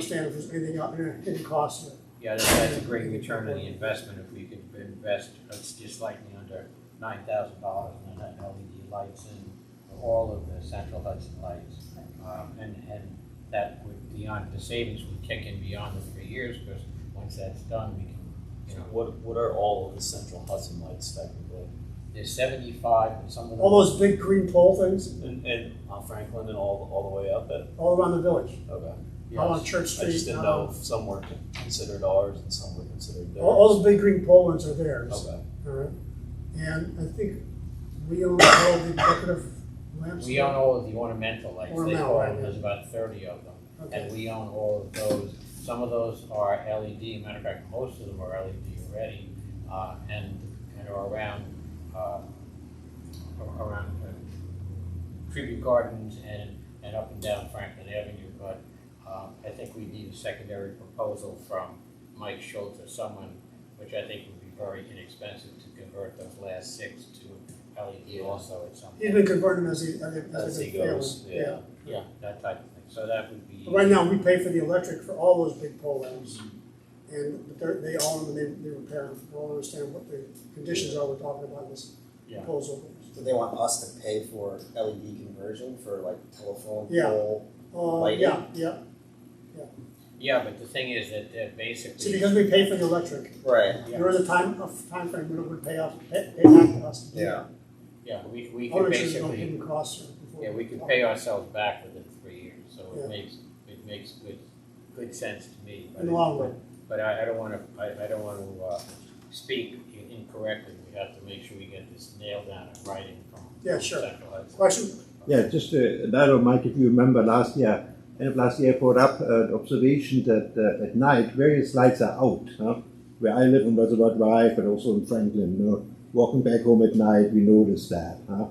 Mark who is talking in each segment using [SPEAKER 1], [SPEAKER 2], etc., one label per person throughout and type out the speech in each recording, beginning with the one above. [SPEAKER 1] understand if there's anything out there, hidden costs. that-
[SPEAKER 2] Yeah, that's, that's a great return on the investment if we could invest, it's just slightly under nine thousand dollars in an LED lights and all of the central Hudson lights. Um, and, and that would, beyond, the savings would kick in beyond the three years, because once that's done, we can, you know,
[SPEAKER 3] What, what are all of the central Hudson lights technically?
[SPEAKER 2] there's seventy-five, and some of them.
[SPEAKER 1] All those big green pole things
[SPEAKER 3] And, and on Franklin and all, all the way up at,
[SPEAKER 1] all around the village,
[SPEAKER 3] okay.
[SPEAKER 1] all on
[SPEAKER 2] Yes.
[SPEAKER 1] Church Street.
[SPEAKER 3] I just didn't
[SPEAKER 1] uh,
[SPEAKER 3] know if some were considered ours and some were considered
[SPEAKER 1] All, all
[SPEAKER 3] theirs.
[SPEAKER 1] those big green pole ones are theirs.
[SPEAKER 3] Okay,
[SPEAKER 1] All right. And I think we own all the decorative lamps.
[SPEAKER 2] We own all of the ornamental lights, they
[SPEAKER 1] Ornamental,
[SPEAKER 2] call
[SPEAKER 1] right,
[SPEAKER 2] them,
[SPEAKER 1] yeah.
[SPEAKER 2] there's about thirty of them. And
[SPEAKER 1] Okay.
[SPEAKER 2] we own all of those. Some of those are LED, matter of fact, most of them are LED already, uh, and, and are around, uh, ar- around uh, tribute gardens and, and up and down Franklin Avenue, but, um, I think we need a secondary proposal from Mike Schultz or someone, which I think would be very inexpensive to convert those last six to LED also at some
[SPEAKER 1] He's been
[SPEAKER 2] point.
[SPEAKER 1] converting as he, as he-
[SPEAKER 3] as
[SPEAKER 1] as
[SPEAKER 3] he
[SPEAKER 1] he
[SPEAKER 3] goes,
[SPEAKER 1] fails.
[SPEAKER 3] yeah.
[SPEAKER 2] Yeah, that type of thing, so that would be.
[SPEAKER 1] But Right now, we pay for the electric for all those big pole lamps. And but they're, they own them, and they, they repair them. I don't understand what the conditions are we're talking about in this
[SPEAKER 2] Yeah.
[SPEAKER 1] proposal.
[SPEAKER 4] Do they want us to pay for LED conversion for like telephone
[SPEAKER 1] Yeah.
[SPEAKER 4] pole?
[SPEAKER 1] Uh,
[SPEAKER 4] Lighting?
[SPEAKER 1] yeah, yeah.
[SPEAKER 2] Yeah, but the thing is that uh,
[SPEAKER 1] See,
[SPEAKER 2] basically,
[SPEAKER 1] because we pay for the electric,
[SPEAKER 4] Right.
[SPEAKER 2] Yeah.
[SPEAKER 1] there is a time, a timeframe when it would pay off, pay, pay back to us.
[SPEAKER 4] Yeah.
[SPEAKER 2] yeah, we, we
[SPEAKER 1] I
[SPEAKER 2] could
[SPEAKER 1] want to make sure there's no
[SPEAKER 2] basically,
[SPEAKER 1] hidden costs. or- before
[SPEAKER 2] yeah, we
[SPEAKER 1] talk.
[SPEAKER 2] could pay ourselves back within three years, so
[SPEAKER 1] Yeah.
[SPEAKER 2] it makes, it makes good, good sense to me. but
[SPEAKER 1] In the
[SPEAKER 2] it-
[SPEAKER 1] long run.
[SPEAKER 2] But I, I don't wanna, I, I don't wanna, uh, speak i- incorrectly, we have to make sure we get this nailed down in writing from.
[SPEAKER 1] Yeah, sure.
[SPEAKER 2] Central Hudson.
[SPEAKER 1] Question?
[SPEAKER 5] Yeah, just to narrow, Mike, if you remember last year, end of last year, I brought up uh, the observation that uh, at night various lights are out. Huh? Where I live on Reservoir Drive, but also in Franklin, you know, walking back home at night, we noticed that. Huh?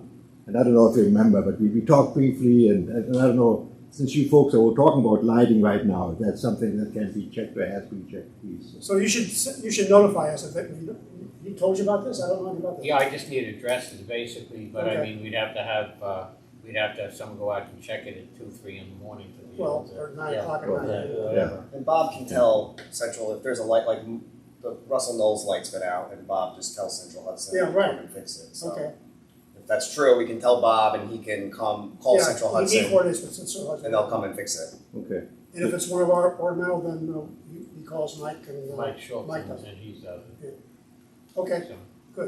[SPEAKER 5] And I don't know if you remember, but we, we talked briefly, and, and I don't know, since you folks are all talking about lighting right now, if that's something that can be checked or has been checked, please.
[SPEAKER 1] So you should, s- you should notify us if it, he told you about this, I don't know about this.
[SPEAKER 2] Yeah, I just need addresses basically, but I
[SPEAKER 1] Okay.
[SPEAKER 2] mean, we'd have to have, uh, we'd have to have someone go out and check it at two, three in the morning to be able
[SPEAKER 1] Well,
[SPEAKER 2] to.
[SPEAKER 1] or nine
[SPEAKER 2] yeah,
[SPEAKER 1] o'clock at
[SPEAKER 2] or
[SPEAKER 1] night.
[SPEAKER 2] that, whatever.
[SPEAKER 4] And Bob can tell Central if there's a light like the Russell Knowles light's been out, and Bob just tells Central Hudson
[SPEAKER 1] Yeah,
[SPEAKER 4] to
[SPEAKER 1] right.
[SPEAKER 4] come and fix
[SPEAKER 2] uh,
[SPEAKER 4] it. So
[SPEAKER 1] Okay.
[SPEAKER 4] if that's true, we can tell Bob, and he can come call
[SPEAKER 1] Yeah,
[SPEAKER 4] Central
[SPEAKER 1] we need
[SPEAKER 4] Hudson,
[SPEAKER 1] coordinates with Central Hudson.
[SPEAKER 4] and they'll come and fix it.
[SPEAKER 5] Okay.
[SPEAKER 1] And if it's one of our ornamental, then uh, he- he calls Mike and, uh,
[SPEAKER 2] Mike Schultz,
[SPEAKER 1] Mike
[SPEAKER 2] and
[SPEAKER 1] does.
[SPEAKER 2] and he's, uh,
[SPEAKER 1] okay,
[SPEAKER 2] so.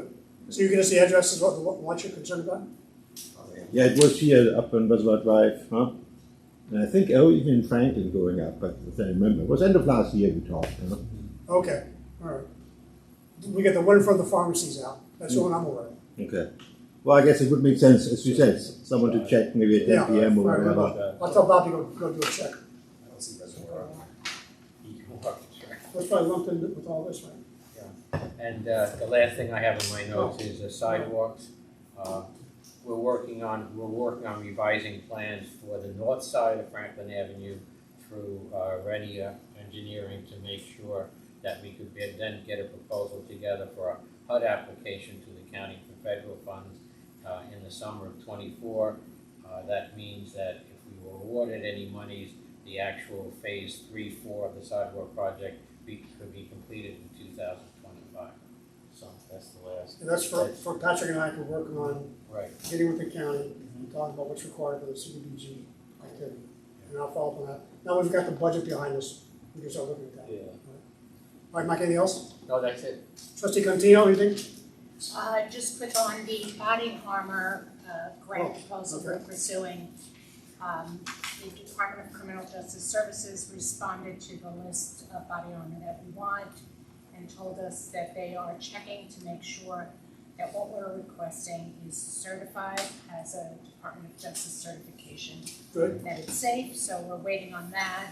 [SPEAKER 1] so you're gonna see addresses, what, what- what you're concerned about?
[SPEAKER 5] Yeah, it was here up on Reservoir Drive, huh? And I think, oh, even in Franklin going up, but if I remember, it was end of last year we talked, huh?
[SPEAKER 1] Okay, all right. We got the one from the pharmacies out, that's
[SPEAKER 2] Hmm.
[SPEAKER 1] the one I'm aware of.
[SPEAKER 5] Okay. Well, I guess it would make sense, as you said, someone to check maybe at
[SPEAKER 1] Yeah,
[SPEAKER 5] ten PM or
[SPEAKER 1] right, right.
[SPEAKER 5] whatever.
[SPEAKER 1] I'll tell Bobby, go, go do a check.
[SPEAKER 4] I don't see reservoir.
[SPEAKER 2] You can walk the track.
[SPEAKER 1] That's probably lumped in with all this, right?
[SPEAKER 2] And uh, the last thing I have in my notes is the sidewalks. Uh, We're working on, we're working on revising plans for the north side of Franklin Avenue through uh, Renia Engineering to make sure that we could get- then get a proposal together for a HUD application to the county for federal funds uh, in the summer of twenty-four. Uh, That means that if we were awarded any monies, the actual phase three, four of the sidewalk project be, could be completed in two thousand twenty-five. So that's the last,
[SPEAKER 1] And that's for, for Patrick and I, we're working on
[SPEAKER 2] right,
[SPEAKER 1] getting with the county, and talking about what's required for the CDBG activity. And I'll follow up on that. Now we've got the budget behind us, we can start looking at that.
[SPEAKER 3] Yeah.
[SPEAKER 1] All right, Mike, anything else?
[SPEAKER 2] no, that's it.
[SPEAKER 1] Trustee Cantino, anything?
[SPEAKER 6] Uh, just quick on the body armor, uh, grant
[SPEAKER 1] Oh,
[SPEAKER 6] proposal we're pursuing. Um, the Department of Criminal Justice Services responded to the list of body armor that we want and told us that they are checking to make sure that what we're requesting is certified as a Department of Justice certification
[SPEAKER 1] Good.
[SPEAKER 6] that it's safe, so we're waiting on that.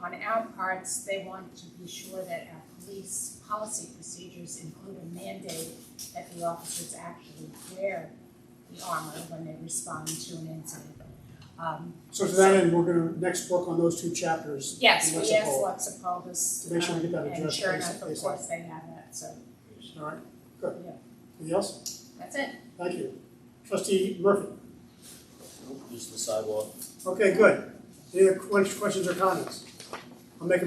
[SPEAKER 6] On our parts, they want to be sure that our police policy procedures include a mandate that the officers actually wear the armor when they respond to an incident. Um,
[SPEAKER 1] So to that end, we're gonna next work on those two chapters.
[SPEAKER 6] yes, we asked
[SPEAKER 1] All
[SPEAKER 6] Lexapol this,
[SPEAKER 1] To make sure we get that
[SPEAKER 6] um, and
[SPEAKER 1] addressed
[SPEAKER 6] sure
[SPEAKER 1] basi-
[SPEAKER 6] enough, of
[SPEAKER 1] basically.
[SPEAKER 6] course, they have that, so
[SPEAKER 1] right, good.
[SPEAKER 6] Yeah.
[SPEAKER 1] Anything else?
[SPEAKER 6] that's it.
[SPEAKER 1] Thank you. Trustee Murphy?
[SPEAKER 3] Just the sidewalk.
[SPEAKER 1] Okay, good. Any other que- questions or comments? I'll make a